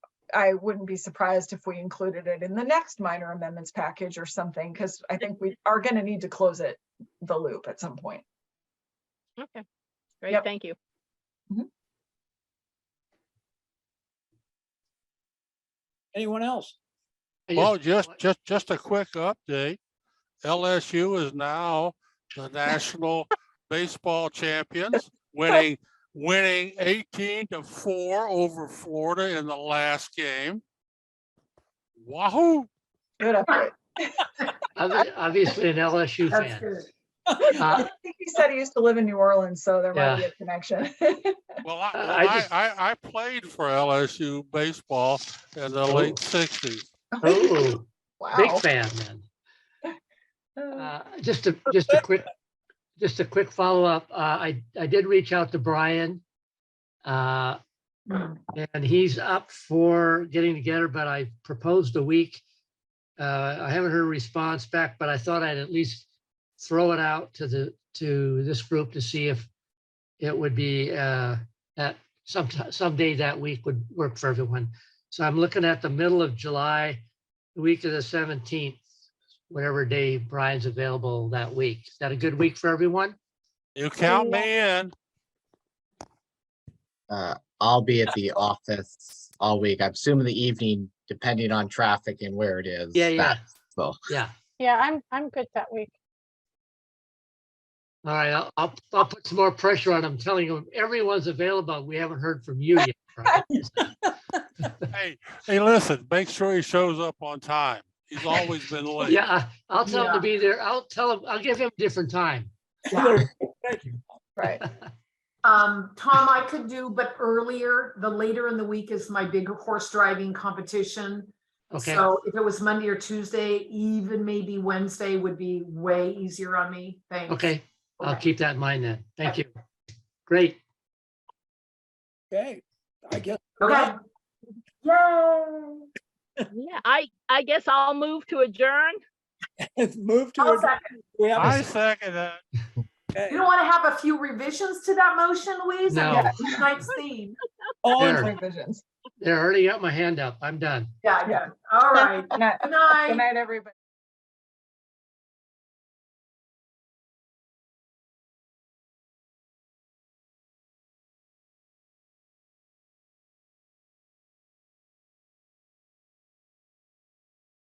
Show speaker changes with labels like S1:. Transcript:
S1: I wouldn't be surprised if we included it in the next minor amendments package or something, because I think we are gonna need to close it, the loop at some point.
S2: Okay, great,
S1: Yep.
S2: thank you.
S3: Anyone else?
S4: I
S5: Well, just, just, just a quick update. LSU is now the national baseball champions, winning, winning eighteen to four over Florida in the last game. Wahoo!
S1: Good update.
S4: obvi- Obviously an LSU fan.
S1: I
S4: Uh,
S1: think He said he used to live in New Orleans, so there might be
S4: Yeah.
S1: a connection.
S5: Well, I,
S4: Uh, I
S5: I,
S4: just-
S5: I, I played for LSU baseball in the late sixties.
S4: oh, Big
S1: Wow.
S4: fan then.
S1: Uh,
S4: Uh, Just a, just a quick, just a quick follow-up. Uh, I, I did reach out to Brian. uh, And he's up for getting together, but I proposed a week. Uh, I haven't heard a response back, but I thought I'd at least throw it out to the, to this group to see if it would be uh, at some, someday that week would work for everyone. So I'm looking at the middle of July, the week of the 17th, whatever day Brian's available that week. Is that a good week for everyone? Oh,
S5: You count me in.
S6: Uh, I'll be at the office all week. I'm assuming the evening, depending on traffic and where it is.
S4: Yeah, yeah.
S6: that- So,
S4: Yeah.
S7: Yeah, I'm, I'm good that week.
S4: All right, I'll, I'll, I'll put some more pressure on him, telling him everyone's available. We haven't heard from you yet. Brian.
S5: Hey, hey, listen, make sure he shows up on time. He's always been late.
S4: Yeah, I- I'll tell him
S1: Yeah.
S4: to be there. I'll tell him, I'll give him a different time.
S3: Thank you.
S1: Right.
S8: Um, Tom, I could do, but earlier, the later in the week is my big horse driving competition.
S4: Okay,
S8: So if it was Monday or Tuesday, even maybe Wednesday would be way easier on me. Thanks.
S4: okay. I'll
S8: Okay.
S4: keep that in mind then. Thank you. Great.
S3: Okay, I guess.
S8: Okay. Yay.
S2: Yeah, I, I guess I'll move to adjourn.
S3: Move to.
S8: I'll
S3: adjourn.
S8: second.
S3: We have a
S5: I second that.
S8: You don't want to have a few revisions to that motion, Louise? I
S4: No.
S8: mean, Tonight's theme.
S3: all in
S4: Sure.
S3: favor.
S1: Revisions.
S4: They already got my hand up. I'm done.
S8: Yeah, yeah. All right.
S1: Good night,
S8: Good night.
S1: good night, everybody.